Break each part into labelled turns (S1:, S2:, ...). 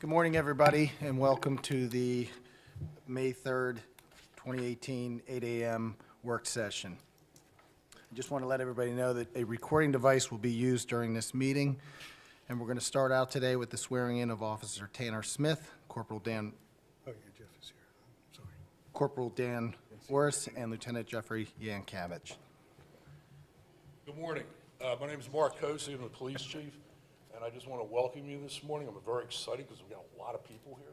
S1: Good morning, everybody, and welcome to the May 3rd, 2018, 8 a.m. work session. I just want to let everybody know that a recording device will be used during this meeting, and we're going to start out today with the swearing-in of Officer Tanner Smith, Corporal Dan,
S2: Oh, yeah, Jeff is here. I'm sorry.
S1: Corporal Dan Orris, and Lieutenant Jeffrey Yankavich.
S3: Good morning. Uh, My name is Mark Cozy, I'm the police chief, and I just want to welcome you this morning. I'm very excited because we've got a lot of people here.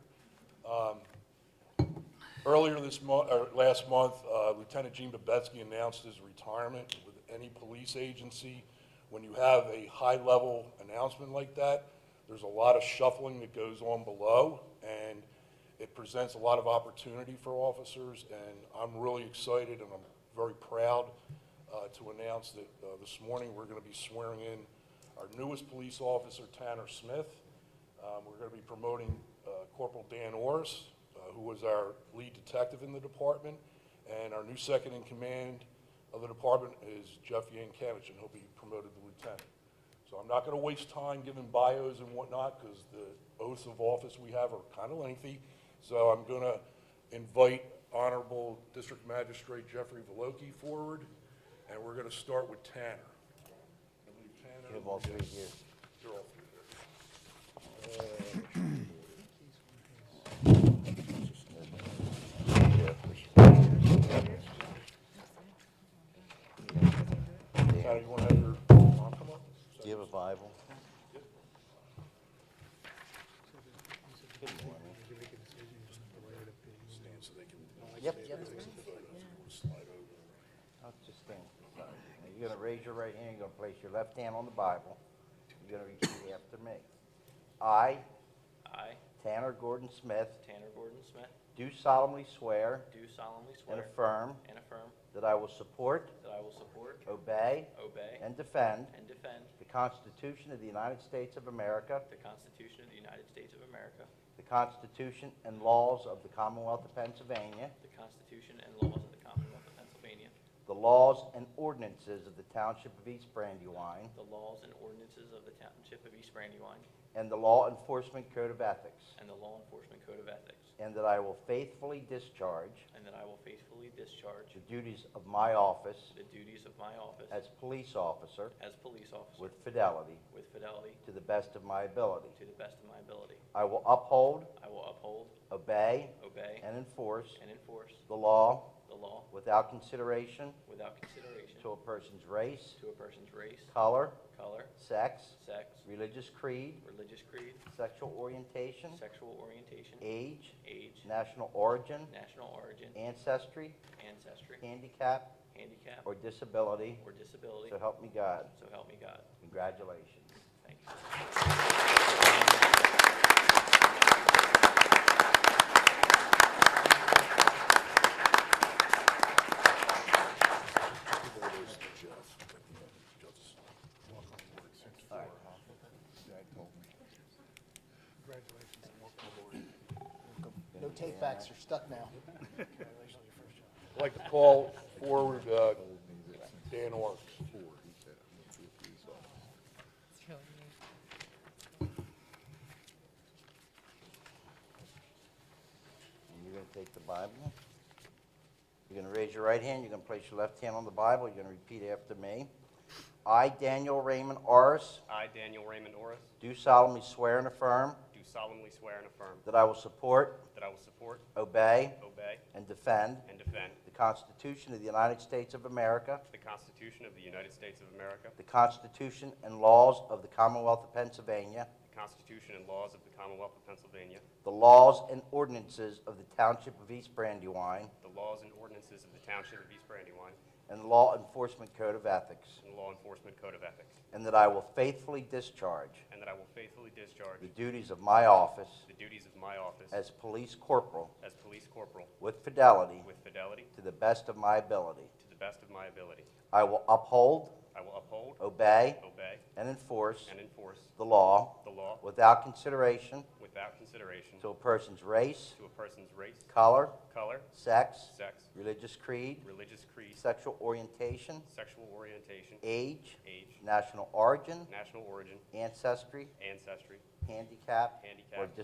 S3: Earlier this month, or last month, uh, Lieutenant Gene Babetsky announced his retirement with any police agency. When you have a high-level announcement like that, there's a lot of shuffling that goes on below, and it presents a lot of opportunity for officers, and I'm really excited and I'm very proud uh, to announce that uh, this morning, we're going to be swearing in our newest police officer, Tanner Smith. Um, We're going to be promoting uh, Corporal Dan Orris, uh, who was our lead detective in the department, and our new second in command of the department is Jeff Yankovich, and he'll be promoted to lieutenant. So I'm not going to waste time giving bios and whatnot, because the oaths of office we have are kind of lengthy, so I'm going to invite Honorable District Magistrate Jeffrey Veloki forward, and we're going to start with Tanner. I believe Tanner-
S4: have all three here.
S3: You're all three here. Tanner, you want to have your mom come up?
S4: Do you have a Bible? Yep. I'll just stand. Now, You're gonna raise your right hand, you're gonna place your left hand on the Bible. You're gonna repeat after me. I,
S5: I,
S4: Tanner Gordon Smith,
S5: Tanner Gordon Smith,
S4: do solemnly swear
S5: do solemnly
S4: and
S5: swear
S4: affirm
S5: and affirm
S4: that I will support,
S5: that I will support,
S4: obey,
S5: obey,
S4: and defend
S5: and defend
S4: the Constitution of the United States of America,
S5: the Constitution of the United States of America,
S4: the Constitution and laws of the Commonwealth of Pennsylvania,
S5: the Constitution and laws of the Commonwealth of Pennsylvania,
S4: the laws and ordinances of the Township of East Brandywine,
S5: the laws and ordinances of the Township of East Brandywine,
S4: and the Law Enforcement Code of Ethics,
S5: and the Law Enforcement Code of Ethics,
S4: and that I will faithfully discharge
S5: and that I will faithfully discharge
S4: the duties of my office
S5: the duties of my office
S4: as police officer
S5: as police
S4: with
S5: officer
S4: fidelity
S5: with fidelity
S4: to the best of my ability.
S5: to the best of my ability.
S4: I will uphold,
S5: I will uphold,
S4: obey,
S5: obey,
S4: and enforce
S5: and enforce
S4: the law
S5: the law
S4: without consideration
S5: without consideration
S4: to a person's race,
S5: to a person's race,
S4: color,
S5: color,
S4: sex,
S5: sex,
S4: religious creed,
S5: religious creed,
S4: sexual orientation,
S5: sexual orientation,
S4: age,
S5: age,
S4: national origin,
S5: national origin,
S4: ancestry,
S5: ancestry,
S4: handicap,
S5: handicap,
S4: or disability,
S5: or disability.
S4: so help me God.
S5: So help me God.
S4: Congratulations.
S5: Thank you.
S1: No take backs, you're stuck now.
S3: I'd like to call forward uh, Dan Orr.
S4: And you're going to take the Bible. You're going to raise your right hand, you're going to place your left hand on the Bible, you're going to repeat after me. I, Daniel Raymond Orris,
S6: I, Daniel Raymond Orris,
S4: do solemnly swear and affirm
S6: do solemnly swear and affirm
S4: that I will support,
S6: that I will support,
S4: obey,
S6: obey,
S4: and defend
S6: and defend
S4: the Constitution of the United States of America,
S6: the Constitution of the United States of America,
S4: the Constitution and laws of the Commonwealth of Pennsylvania,
S6: the Constitution and laws of the Commonwealth of Pennsylvania,
S4: the laws and ordinances of the Township of East Brandywine,
S6: the laws and ordinances of the Township of East Brandywine,
S4: and the Law Enforcement Code of Ethics,
S6: and the Law Enforcement Code of Ethics,
S4: and that I will faithfully discharge
S6: and that I will faithfully discharge
S4: the duties of my office
S6: the duties of my office
S4: as police corporal
S6: as police corporal
S4: with fidelity
S6: with fidelity
S4: to the best of my ability.
S6: to the best of my ability.
S4: I will uphold,
S6: I will uphold,
S4: obey,
S6: obey,
S4: and enforce
S6: and enforce
S4: the law
S6: the law
S4: without consideration
S6: without consideration
S4: to a person's race,
S6: to a person's race,
S4: color,
S6: color,
S4: sex,
S6: sex,
S4: religious creed,
S6: religious creed,
S4: sexual orientation,
S6: sexual orientation,
S4: age,
S6: age,
S4: national origin,
S6: national origin,
S4: ancestry,
S6: ancestry,
S4: handicap, or
S6: handicap,